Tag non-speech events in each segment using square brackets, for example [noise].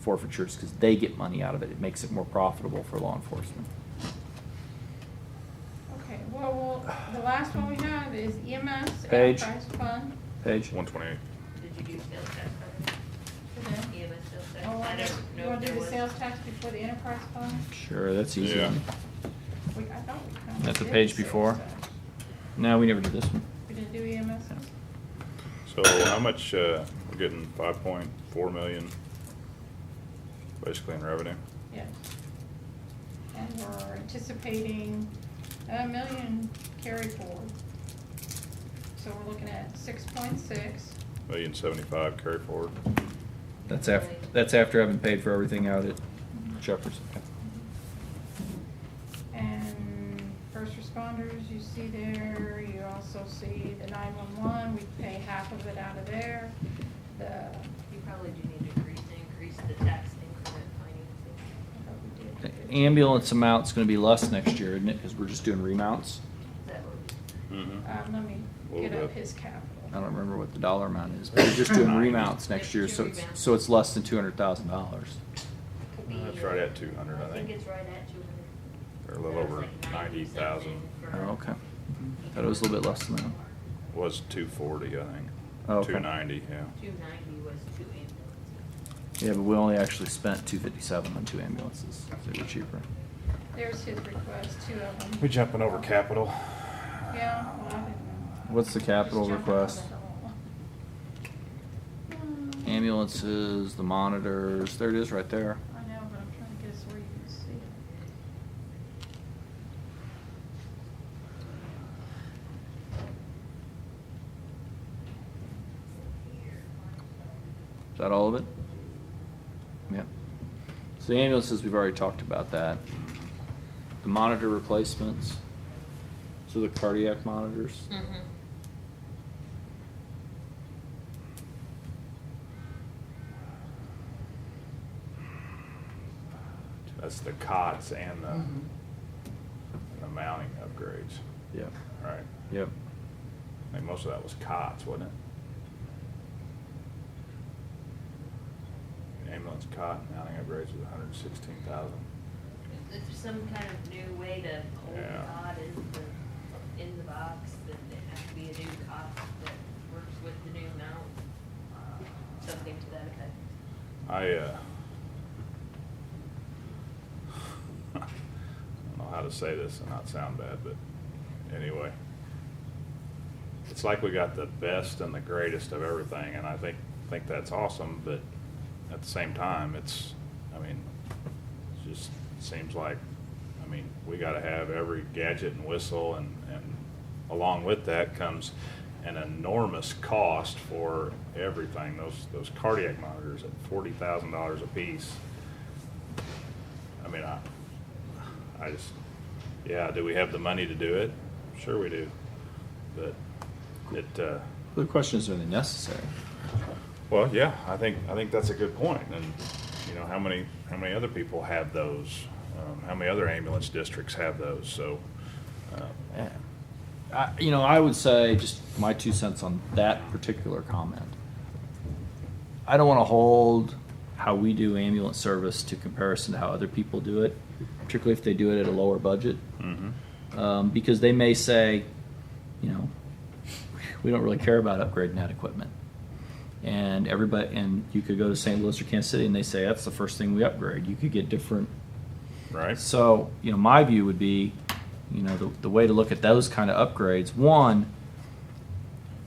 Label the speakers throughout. Speaker 1: forfeitures because they get money out of it. It makes it more profitable for law enforcement.
Speaker 2: Okay, well, well, the last one we have is EMS
Speaker 1: Page.
Speaker 2: Enterprise Fund.
Speaker 1: Page?
Speaker 3: One twenty-eight.
Speaker 4: Did you do sales tax?
Speaker 2: Today.
Speaker 4: Yeah, but sales tax,
Speaker 2: Mm-hmm. Oh,
Speaker 4: I
Speaker 2: I
Speaker 4: don't
Speaker 2: you
Speaker 4: know if
Speaker 2: wanna
Speaker 4: there
Speaker 2: do the
Speaker 4: was.
Speaker 2: sales tax before the enterprise fund?
Speaker 1: Sure, that's easy.
Speaker 3: Yeah.
Speaker 2: We, I thought we kinda
Speaker 1: That's a
Speaker 2: did
Speaker 1: page
Speaker 2: the sales
Speaker 1: before.
Speaker 2: tax.
Speaker 1: No, we never did this one.
Speaker 2: We didn't do E EMS?
Speaker 3: So how much, uh, we're getting five point four million basically in revenue?
Speaker 2: Yes. And we're anticipating a million carry forward. So we're looking at six point six.
Speaker 3: Million seventy-five carry forward.
Speaker 1: That's after, that's after having paid for everything out at Jefferson.
Speaker 2: And first responders, you see there, you also see the nine-one-one, we pay half of it out of there. The, I
Speaker 4: You probably do need to increase, increase the tax increment financing.
Speaker 2: thought we did. Um,
Speaker 1: The Ambulance amount's gonna be less next year, isn't it? Because we're just doing remounts.
Speaker 4: Is that what?
Speaker 2: Um,
Speaker 3: Mm-hmm.
Speaker 2: let me
Speaker 3: Little
Speaker 2: get up
Speaker 3: bit.
Speaker 2: his
Speaker 1: I
Speaker 2: capital.
Speaker 1: don't remember what the dollar amount is, but we're just doing remounts next year, so it's, so it's less than two hundred thousand dollars.
Speaker 4: could
Speaker 3: Uh, it's
Speaker 4: be,
Speaker 3: right
Speaker 4: uh,
Speaker 3: at 200, I think.
Speaker 4: it's right at two hundred.
Speaker 3: Or a little over 90,000.
Speaker 1: Oh, Okay. Thought it was a little bit less than that.
Speaker 3: Was two forty, I think.
Speaker 1: Oh, okay.
Speaker 3: Two ninety, yeah.
Speaker 4: Two ninety was two ambulances.
Speaker 1: Yeah, but we only actually spent two fifty-seven on two ambulances, so they were cheaper.
Speaker 2: There's his request, two of them.
Speaker 3: We jumping over capital?
Speaker 2: Yeah. well, I didn't know.
Speaker 1: What's the capital
Speaker 2: Just jumping
Speaker 1: request?
Speaker 2: over the whole one. Hmm,
Speaker 1: Ambulances, the monitors, there it is right there.
Speaker 2: I know, but I'm trying to guess where you can see it.
Speaker 1: Is that all of it? Yeah. So the ambulances, we've already talked about that. The monitor replacements, so the cardiac monitors.
Speaker 4: Mm. Mm-hmm.
Speaker 3: That's the cots and the, and the mounting upgrades,
Speaker 1: Yep,
Speaker 3: right?
Speaker 1: yep.
Speaker 3: I think most of that was cots, wasn't it? An Ambulance cot and mounting upgrades was hundred and sixteen thousand.
Speaker 4: If there's some kind of new way to hold the
Speaker 3: Yeah.
Speaker 4: cot in the, in the box, then it has to be a new cot that works with the new mount, something to that effect.
Speaker 3: I, uh, [laughs] I don't know how to say this and not sound bad, but anyway. It's like we got the best and the greatest of everything, and I think, think that's awesome, but at the same time, it's, I mean, it just seems like, I mean, we gotta have every gadget and whistle and, and along with that comes an enormous cost for everything. Those, those cardiac monitors at forty thousand dollars a piece. I mean, I, I just, yeah, do we have the money to do it? Sure we do, but it, uh,
Speaker 1: The question is, are they necessary?
Speaker 3: well, yeah, I think, I think that's a good point, and, you know, how many, how many other people have those? Um, how many other ambulance districts have those, so, uh,
Speaker 1: I, you know, I would say just my two cents on that particular comment. I don't want to hold how we do ambulance service to comparison to how other people do it, particularly if they do it at a lower budget,
Speaker 3: mhm.
Speaker 1: um, because they may say, you know, we don't really care about upgrading that equipment. And everybody, and you could go to St. Louis or Kansas City, and they say that's the first thing we upgrade. You could get different
Speaker 3: right?
Speaker 1: so, you know, my view would be, you know, the, the way to look at those kind of upgrades, one,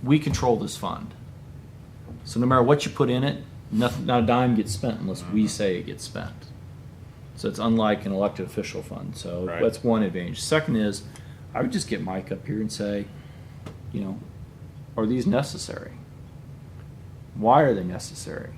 Speaker 1: we control this fund. So no matter what you put in it, nothing, not a dime gets spent unless
Speaker 3: Mm-hmm.
Speaker 1: we say it gets spent. So it's unlike an elected official fund. So
Speaker 3: Right.
Speaker 1: that's one advantage. Second is, I would just get Mike up here and say, you know, are these necessary? Why are they necessary?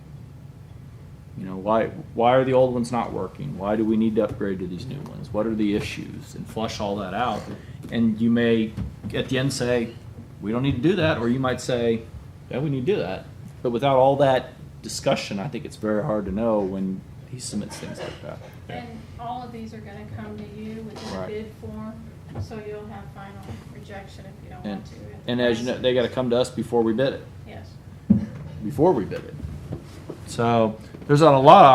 Speaker 1: You know, why why are the old ones not working? Why do we need to upgrade to these new ones? What are the issues? And flush all that out. And you may at the end say, we don't need to do that, or you might say, yeah, we need to do that. But without all that discussion, I think it's very hard to know when he submits things like that.
Speaker 2: And all of these are gonna come to you within a
Speaker 1: Right.
Speaker 2: bid form, so you'll have final rejection if you don't
Speaker 1: And
Speaker 2: want to.
Speaker 1: and as you know, they got to come to us before we bid it.
Speaker 2: Yes.
Speaker 1: Before we bid it. So there's not a lot of